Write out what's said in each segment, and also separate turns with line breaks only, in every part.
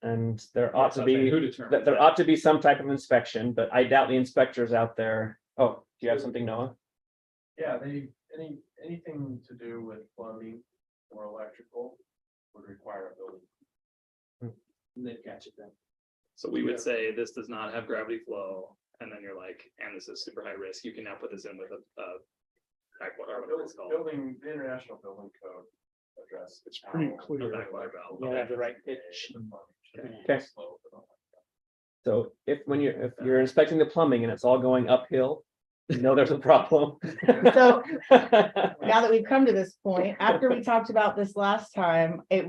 And there ought to
I'm saying
be,
Who
that
determines?
there
that?
ought to be some type of inspection, but I doubt the inspectors out there. Oh, do you have something, Noah?
Yeah, they, any, anything to do with plumbing or electrical would require a building.
They've got you then. So we would say this does not have gravity flow, and then you're like, and this is super high risk, you can now put this in with a, a. Backwater,
Our
whatever it's
buil-
called.
Building, the international building code address. It's
pretty
Um, A
clear.
backwater valve.
You don't have
okay.
the right pitch.
Okay. So if, when you're, if you're
Uh-huh.
inspecting the plumbing and it's all going uphill, you know there's a problem.
So now that we've come to this point, after we talked about this last time, it,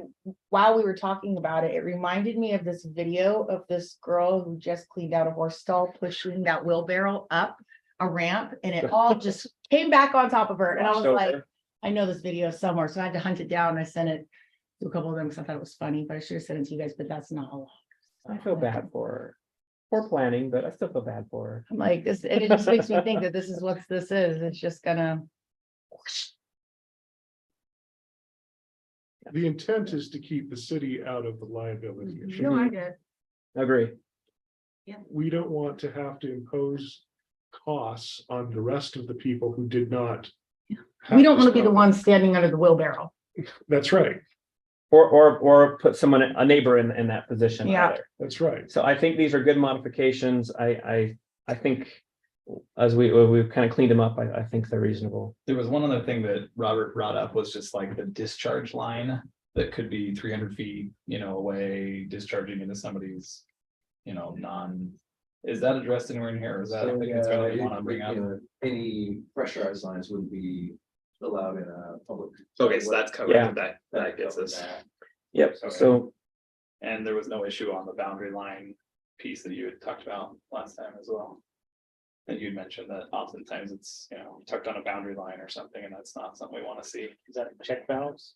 while we were talking about it, it reminded me of this video of this girl who just cleaned out a horse stall, pushing that wheelbarrow up a ramp, and it all just came back on top of her, and I was
Washed over.
like, I know this video somewhere, so I had to hunt it down, I sent it to a couple of them, because I thought it was funny, but I should have sent it to you guys, but that's not allowed.
I feel bad for her. Poor planning, but I still feel bad for her.
I'm like, this, and it just makes me think that this is what this is, it's just gonna.
The intent is to keep the city out of the liability
Mm-hmm.
issue.
get
Agree.
We don't want to have to impose costs on the rest of the people who did not. have
We don't
this
want to be the
problem.
ones standing under the wheelbarrow.
That's right,
Or, or, or put someone, a neighbor in, in that position
Yeah.
either.
that's right.
So I think these are good modifications. I, I, I think as we, we've kind of cleaned them up, I, I think they're reasonable.
There was one other thing that Robert brought up was just like the discharge line that could be three hundred feet, you know, away discharging into somebody's. You know, non, is that addressed anywhere in here? or Is that? a thing that's really wanna bring up?
Any pressurized lines wouldn't be allowed in a public.
Okay, so that's
Yeah.
covered, that, that gets us,
Yep.
Okay.
So
and there was no issue on the boundary line piece that you had talked about last time as well. And you'd mentioned that oftentimes it's, you know, tucked on a boundary line or something, and that's not something we wanna see.
Is that check valves?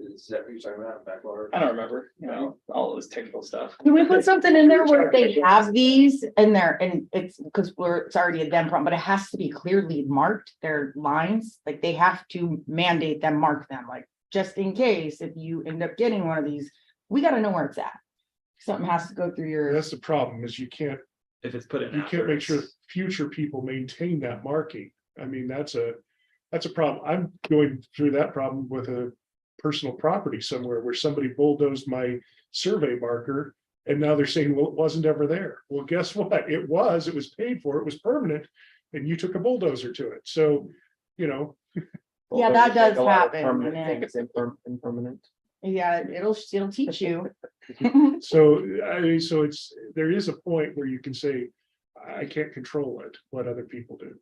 Is that what you're talking about, backwater?
I don't remember, you know, all this technical stuff.
Can we put something in there where they have these in there and it's because we're, it's already a them problem, but it has to be clearly marked, their lines, like they have to mandate them, mark them, like just in case if you end up getting one of these, we gotta know where it's at. Something has to go through your,
That's the problem, is you can't,
If it's put in.
you can't make sure
afterwards.
future people maintain that marking. I mean, that's a, that's a problem. I'm going through that problem with a personal property somewhere where somebody bulldozed my survey marker. And now they're saying, well, it wasn't ever there. Well, guess what? It was, it was paid for, it was permanent, and you took a bulldozer to it. So, you know,
Yeah,
bulldozers
that
make
does
a lot of
happen,
permanent
and
things imper- Impermanent.
yeah, it'll, it'll teach you.
So I mean, so it's, there is a point where you can say, I can't control it, what other people do.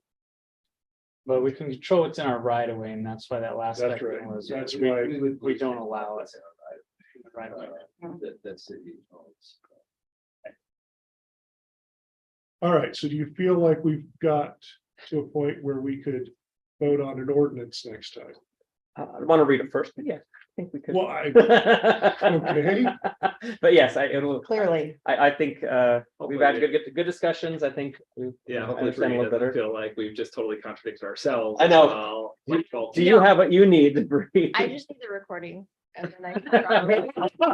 But we can control what's in our right of way, and that's why that last
That's
section
right.
was,
That's
we-
why-
would-
we don't allow it. Right of way.
Uh, That, that's it.
All right, so do you feel like we've got to a point where we could vote on an ordinance next time?
Uh, I want to read it first, but yeah, I think we could.
Well, I, okay.
But yes, I, it'll,
Clearly,
I, I think, uh, we've had
Hopefully-
good, good discussions. I think. we've-
Yeah,
I
hopefully
understand a
Brady
little
doesn't
better.
feel like we've just totally contradicted ourselves.
I know.
Well, like, well,
Do you have what you need to breathe?
I just need the recording. and then I can draw. Make sure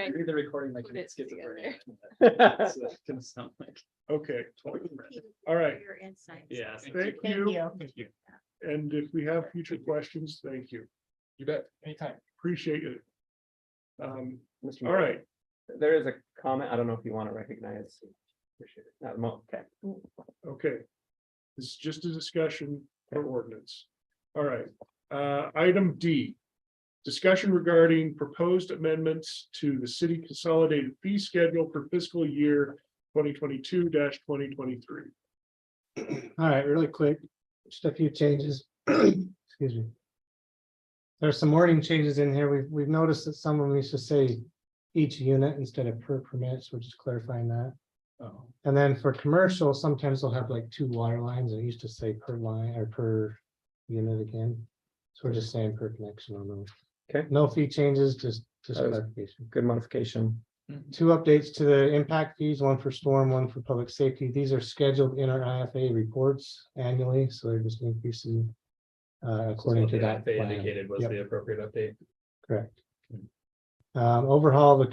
I
Read the recording like
Put it
it's schizophrenia.
just.
It's, uh, gonna sound like-
okay, all right,
Your insights.
Yeah. so-
thank
thank
you.
you.
And if we have future questions, thank you.
You bet, anytime.
Appreciate it. Um,
Mm.
Mr.
all
Mayor,
right,
There is a comment. I don't know if you want to recognize. Appreciate it. Not mo- okay.
okay. This is just a discussion for ordinance. All right, uh, item D. Discussion regarding proposed amendments to the city consolidated fee schedule for fiscal year twenty twenty-two twenty twenty-three.
All right, really quick, just a few changes. Excuse me. There's some wording changes in here. We've, we've noticed that someone used to say each unit instead of per permit, so we're just clarifying that.
Oh.
And then for commercial, sometimes they'll have like two water lines and it used to say per line or per unit again. So we're just saying per connection on those.
Okay.
No fee changes, just, just
That was-
clarification
Good modification.
two updates to the impact fees, one for storm, one for public safety. These are scheduled in our IFA reports annually, so they're just increasing uh, according
What
to
the
that.
They
plan.
indicated was
Yep,
the appropriate update.
Correct. Um, Overhaul of the